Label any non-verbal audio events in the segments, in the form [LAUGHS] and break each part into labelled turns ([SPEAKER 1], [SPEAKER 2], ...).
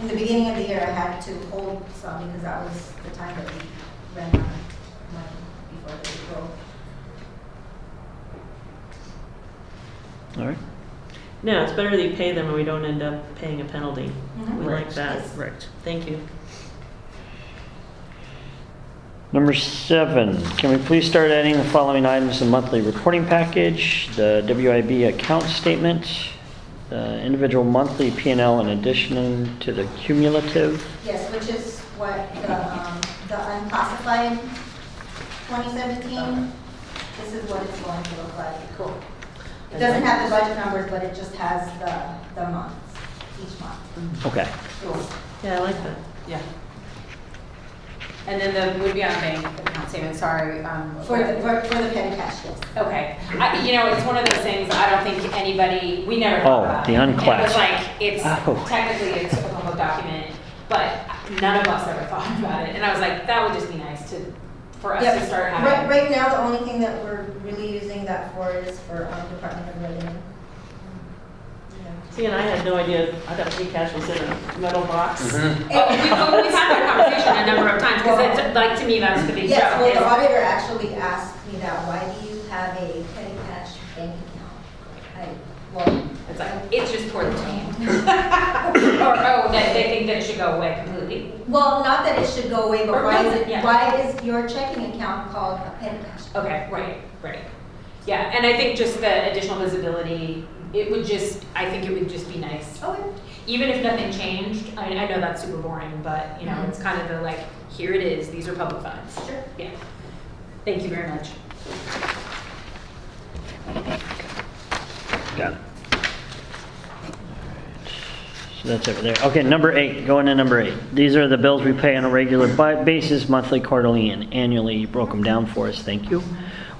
[SPEAKER 1] In the beginning of the year, I had to hold some because that was the time that we ran out of money before the April.
[SPEAKER 2] All right.
[SPEAKER 3] No, it's better that you pay them and we don't end up paying a penalty.
[SPEAKER 1] Mhm.
[SPEAKER 3] We like that.
[SPEAKER 1] Yes.
[SPEAKER 2] Right.
[SPEAKER 3] Thank you.
[SPEAKER 2] Number seven, can we please start adding the following items to the monthly reporting package? The WIB account statement, the individual monthly P and L in addition to the cumulative.
[SPEAKER 1] Yes, which is what the, um, the unclassified 2017, this is what it's going to look like. Cool. It doesn't have the budget numbers, but it just has the, the months, each month.
[SPEAKER 2] Okay.
[SPEAKER 1] Cool.
[SPEAKER 3] Yeah, I like that.
[SPEAKER 4] Yeah. And then the would be on bank account statement, sorry. um,
[SPEAKER 1] For the, for for the petty cash, yes.
[SPEAKER 4] Okay, I, you know, it's one of those things, I don't think anybody, we never
[SPEAKER 2] Oh,
[SPEAKER 4] thought about.
[SPEAKER 2] the
[SPEAKER 4] it. It
[SPEAKER 2] unclass.
[SPEAKER 4] was like,
[SPEAKER 2] Oh.
[SPEAKER 4] it's technically it's a public document, but none of us ever [LAUGHS] thought about it. And I was like, that would just be nice to, for us
[SPEAKER 1] Yep.
[SPEAKER 4] to start
[SPEAKER 1] Right,
[SPEAKER 4] having.
[SPEAKER 1] right now, the only thing that we're really using that for is for um, Department of Revenue. Yeah.
[SPEAKER 3] See, and I had no idea, I thought free cash was in a metal box.
[SPEAKER 1] Mm-hmm.
[SPEAKER 4] Oh, we- we- We've had that conversation a number of times, because it's, like, to me, that's the big joke.
[SPEAKER 1] Yes, well,
[SPEAKER 4] is-
[SPEAKER 1] the auditor actually asked me that, why do you have a petty cash bank account? I, well,
[SPEAKER 4] It's like, it's just poor team. Or, oh, that they think that it should go away completely.
[SPEAKER 1] well, not that it should go away, but
[SPEAKER 4] Or
[SPEAKER 1] why is
[SPEAKER 4] doesn't,
[SPEAKER 1] it,
[SPEAKER 4] yeah.
[SPEAKER 1] why is your checking account called a petty cash?
[SPEAKER 4] Okay, right, right. Yeah, and I think just the additional visibility, it would just, I think it would just be nice.
[SPEAKER 1] Okay,
[SPEAKER 4] Even if nothing changed, I mean, I know that's super boring, but, you know, it's kind of the like, here it is, these are public funds.
[SPEAKER 1] sure.
[SPEAKER 4] Yeah. Thank you very much.
[SPEAKER 2] Got it. So that's over there. Okay, number eight, going to number eight. These are the bills we pay on a regular bi- basis, monthly, quarterly, and annually. You broke them down for us, thank you.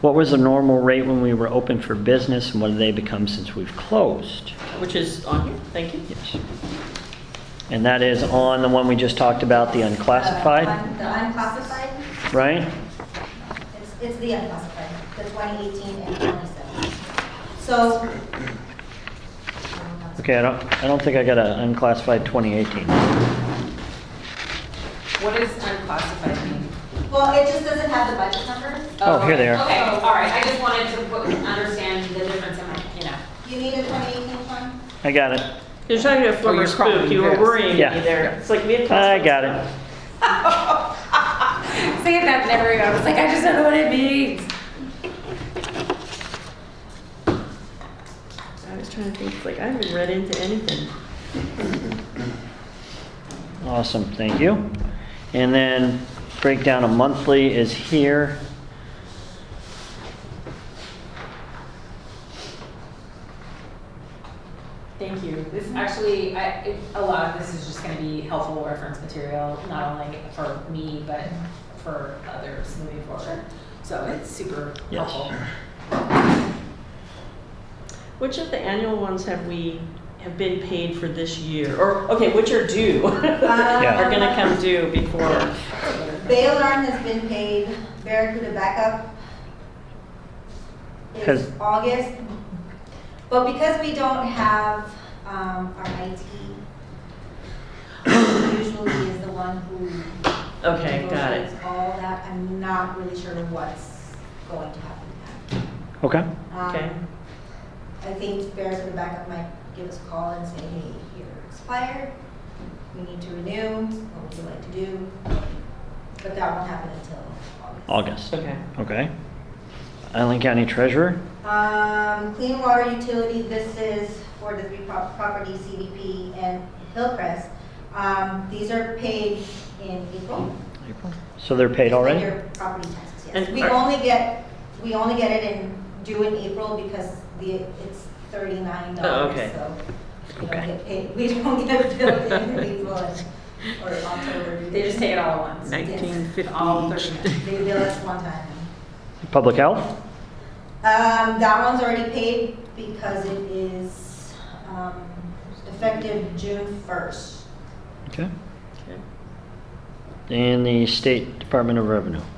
[SPEAKER 2] What was the normal rate when we were open for business, and what have they become since we've closed?
[SPEAKER 3] Which is on here, thank you.
[SPEAKER 2] Yes. And that is on the one we just talked about, the
[SPEAKER 1] Uh,
[SPEAKER 2] unclassified,
[SPEAKER 1] un- The unclassified,
[SPEAKER 2] right?
[SPEAKER 1] it's, it's the unclassified, the 2018 and 2017. So.
[SPEAKER 2] Okay, I don't, I don't think I got an unclassified 2018.
[SPEAKER 4] What does unclassified mean?
[SPEAKER 1] Well, it just doesn't have the budget number.
[SPEAKER 2] Oh, here they are.
[SPEAKER 4] Okay, all right, I just wanted to put- understand the difference in, like, you know.
[SPEAKER 1] You need a 2018 one?
[SPEAKER 2] I got it.
[SPEAKER 3] You're talking to a former
[SPEAKER 5] you're
[SPEAKER 3] spook,
[SPEAKER 5] crawling
[SPEAKER 3] you were
[SPEAKER 5] fast.
[SPEAKER 3] worrying me
[SPEAKER 2] Yeah.
[SPEAKER 3] there. It's like we had.
[SPEAKER 2] I got it.
[SPEAKER 4] Saying that never, I was like, I just don't know what it means.
[SPEAKER 3] I was trying to think, like, I haven't read into anything.
[SPEAKER 2] Awesome, thank you. And then breakdown of monthly is here.
[SPEAKER 4] Thank you. This actually, I, it- a lot of this is just gonna be helpful reference material, not only for me, but for others moving forward. So it's super
[SPEAKER 2] Yes.
[SPEAKER 4] helpful.
[SPEAKER 3] Which of the annual ones have we, have been paid for this year? Or, okay, which are due? [LAUGHS]
[SPEAKER 1] Yeah.
[SPEAKER 3] Are gonna come due before,
[SPEAKER 1] Uh, Bail arm has been paid, Barracuda backup
[SPEAKER 2] Has-
[SPEAKER 1] is August. But because we don't have um, our IT, usually is the one who
[SPEAKER 3] okay, got it.
[SPEAKER 1] negotiates all that. I'm not really sure what's going to happen with
[SPEAKER 2] Okay,
[SPEAKER 1] that.
[SPEAKER 3] Okay.
[SPEAKER 1] Um, I think Barracuda backup might give us a call and say, hey, you're expired, we need to renew, what would you like to do? But that won't happen until August.
[SPEAKER 2] August,
[SPEAKER 3] Okay.
[SPEAKER 2] okay. Island County Treasurer,
[SPEAKER 1] Um, clean water utility, this is for the three prop- properties, CDP and Hillcrest. Um, these are paid in April.
[SPEAKER 2] so they're paid already?
[SPEAKER 1] Your property taxes, yes.
[SPEAKER 3] And
[SPEAKER 1] We
[SPEAKER 3] are-
[SPEAKER 1] only get, we only get it in, due in April because the, it's thirty-nine
[SPEAKER 3] Oh,
[SPEAKER 1] dollars,
[SPEAKER 3] okay.
[SPEAKER 1] so. We
[SPEAKER 2] Okay.
[SPEAKER 1] don't get paid, we don't get billed in April and- or October.
[SPEAKER 4] They just take it all at once.
[SPEAKER 1] Nineteen
[SPEAKER 4] All thirty-nine.
[SPEAKER 1] They bill us one time.
[SPEAKER 2] Public Health,
[SPEAKER 1] Um, that one's already paid because it is, um, effective June first.
[SPEAKER 2] okay. And the State Department of Revenue.
[SPEAKER 1] Uh,